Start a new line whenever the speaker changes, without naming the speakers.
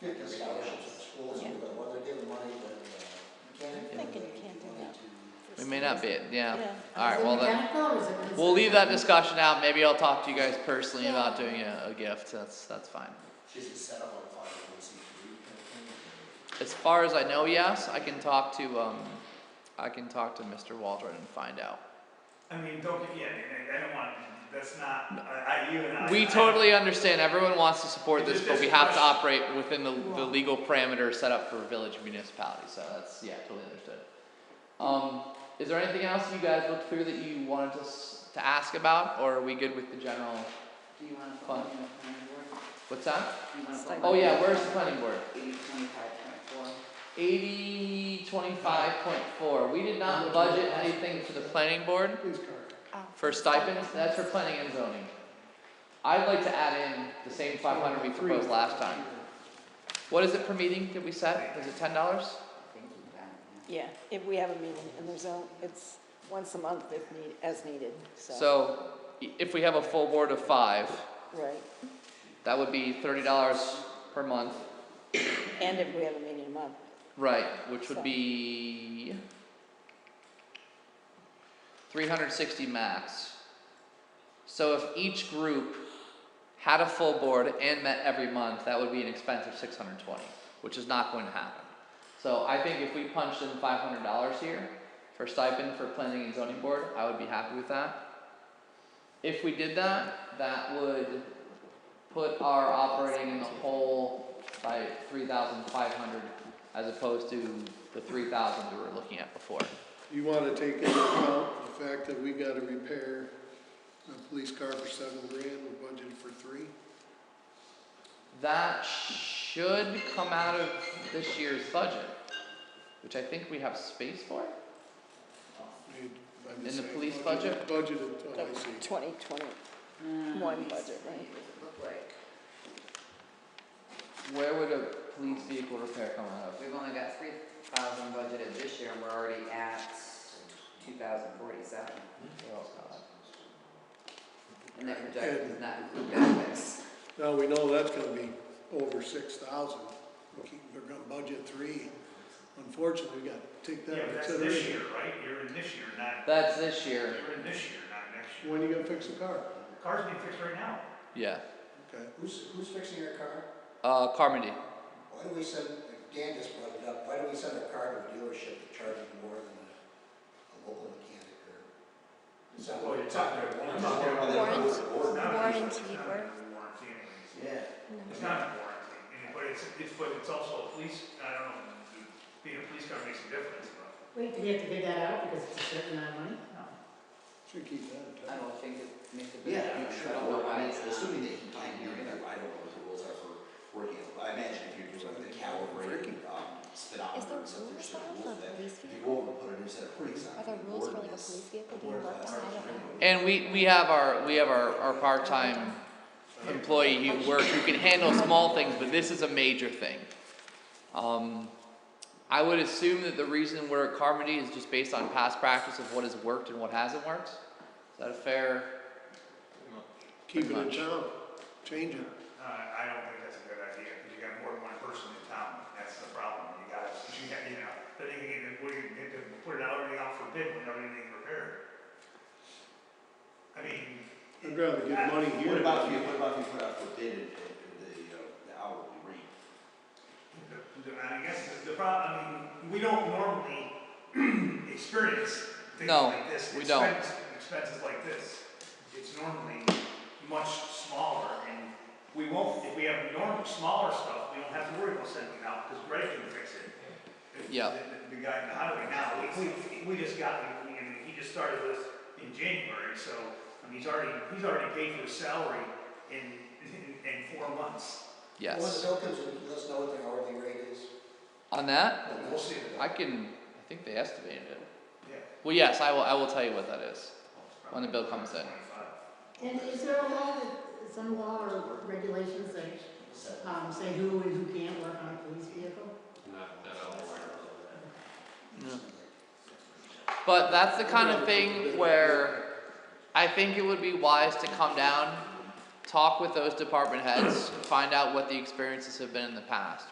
pick the scholarships at schools,
Yeah.
but whether they give the money uh, to the mechanic.
I'm thinking you can't do that.
It may not be, yeah.
Yeah.
All right, well then, we'll leave that discussion out. Maybe I'll talk to you guys personally
Yeah.
about doing a, a gift. That's, that's fine.
Is it set up on five oh one C three? kind
As far as I know, yes, I can talk to, um, I can talk to Mr. Waldron and find out.
I mean, don't get, yeah, I mean, I- I don't want, that's not, I, I, you and I.
We
I-
totally understand, everyone wants to support
It's
this,
just-
but
it's
we
a
have to
question.
operate within the, the legal parameters set up for village municipalities, so that's, yeah, totally understood. Um, is there anything else you guys looked through that you wanted us to ask about, or are we good with the general,
Do you wanna put
Fun.
money in the planning board?
what's that?
Do you wanna
It's
put
like-
Oh
money in
yeah,
the
where's the planning board?
Eighty, twenty-five, twenty-four.
Eighty twenty-five point four, we did not budget anything for the planning board
of thing? Please, Carter.
Oh.
for stipends, that's for planning and zoning. I'd like to add in the same five hundred we proposed last time. What is it per meeting that we set? Is it ten dollars?
Thank you, Brian.
Yeah, if we have a meeting, and there's a, it's once a month if need, as needed, so,
So i- if we have a full board of five,
right.
that would be thirty dollars per month.
And if we have a meeting a month,
Right, which would
So-
be three hundred sixty max. So if each group had a full board and met every month, that would be an expense of six hundred twenty, which is not going to happen. So I think if we punched in five hundred dollars here for stipend for planning and zoning board, I would be happy with that. If we did that, that would put our operating in the hole by three thousand five hundred as opposed to the three thousand we were looking at before.
You wanna take into account the fact that we gotta repair a police car for seven grand, we budgeted for three?
That should come out of this year's budget, which I think we have space for.
You- I'm
In
just
the
saying,
police
budgeted- Budgeted,
the
oh, I see.
twenty twenty,
Um,
One
let me
budget,
see
right?
what it looked like.
Where would a police vehicle repair come out of?
We've only got three thousand budgeted this year, and we're already at two thousand forty-seven,
Oh, God.
and that projection does not include benefits.
Now, we know that's gonna be over six thousand, we keep, we're gonna budget three. Unfortunately, we gotta take
Yeah, but
that into
that's this
consideration.
year, right? You're in this year, not,
That's this year,
you're in this year, not next year.
When are you gonna fix the car?
Cars being fixed right now.
yeah.
Okay,
Who's, who's fixing your car?
Uh, Carmody,
Why do we send, Dan just brought it up, why do we send a car to a dealership that charges more than a, a local mechanic or? It's not,
Well, you're
it's not.
talking-
it's not one of them.
Warrants? It's
Warrants.
not under-
Warranty
it's not
work.
under Warranty anyways.
Yeah.
It's not under warranty, and- but it's, it's, but it's also a police, I don't know, being a police car makes a difference, but.
Wait, do they have to bid that out because it's a certain amount of money?
should keep that
I
in touch.
don't think it makes a big
Yeah, I'm
difference. I
sure,
don't know why
I mean,
it's not
assuming they can
on
time
here
you,
either.
I don't know what the rules are for working, it. I imagine if you're doing the calibrated, um,
Is
speedometer
there
and stuff,
rules
there's
for
certain
that,
rules
for
that,
police
if you
vehicle?
go over and put a new set of brakes on.
Are there
the
rules for, like, a
ordinance,
police vehicle
the board
being
has
left
to
on? I don't know.
remove it.
and we, we have our, we have our, our part-time employee who works, who can handle small things, but this is a major thing. Um, I would assume that the reason we're at Carmody is just based on past practice of what has worked and what hasn't worked. Is that a fair?
Keep it in
much.
town, change it.
Uh, I don't think that's a good idea, because you got more than one person in town, that's the problem, you gotta, you got, you know, then you can, get- what do you, get to put it out, everything out for bid when everything repaired. I mean.
I'd rather get money here.
What about if you, what about if you put out for bid at, at the, uh, the hourly rate?
The- the- I guess the- the problem, I mean, we don't normally experience things
No,
like this.
we don't.
expense- Expenses like this, it's normally much smaller and we won't, if we have normal, smaller stuff, we don't have to worry about sending it out because Greg can fix it. The-
Yeah.
the- The guy in the highway now, we- we, we just got, I mean, he just started this in January, so, I mean, he's already, he's already paid for his salary in, in, in four months.
Yes.
When the bill comes, in, let us know what the hourly rate is.
On that,
We'll see. it.
I can, I think they estimated it.
Yeah.
Well, yes, I will, I will tell you what that is. When the bill comes in.
And is there a law, that- some law or regulations that um, say who and who can't work on a police vehicle?
But that's the kind of thing where I think it would be wise to come down, talk with those department heads, find out what the experiences have been in the past.